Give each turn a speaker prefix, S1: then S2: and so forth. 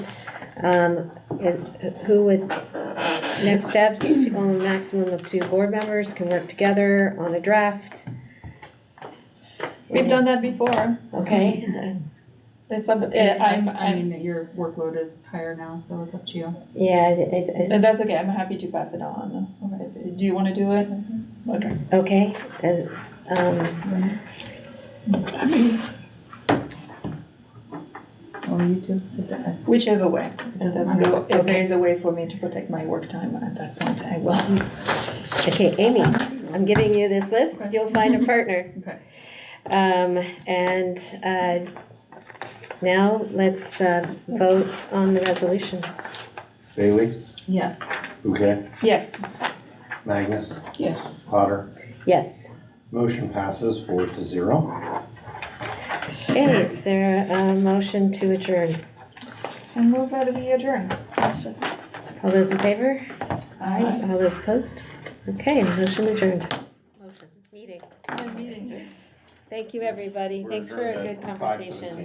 S1: Um, is- who would, next steps, only maximum of two board members can work together on a draft.
S2: We've done that before.
S1: Okay,
S2: It's up,
S3: I,
S2: eh, I'm,
S3: I
S2: I'm,
S3: mean, that your workload is higher now, so it's up to you.
S1: yeah, I-
S2: that's okay, I'm happy to pass it on. Alright, Do you wanna do it? Okay.
S1: I- okay, and, um,
S3: Or you two.
S2: Whichever way, it doesn't go, if there is a way for me to protect my work time at that point, I will.
S1: okay, Amy, I'm giving you this list, you'll find a partner.
S3: Okay.
S1: Um, and, uh, now let's, uh, vote on the resolution.
S4: Bailey,
S3: Yes.
S4: Bouquet,
S2: Yes,
S4: Magnus,
S3: Yes.
S4: Potter.
S1: Yes.
S4: Motion passes four to zero.
S1: Okay, is there a motion to adjourn?
S2: and move out of the adjourn.
S1: All those in favor?
S2: Aye.
S1: All those opposed? Okay, motion adjourned. Motion, meeting.
S2: Good meeting you.
S1: Thank you, everybody. Thanks for a good
S4: Five
S1: conversation.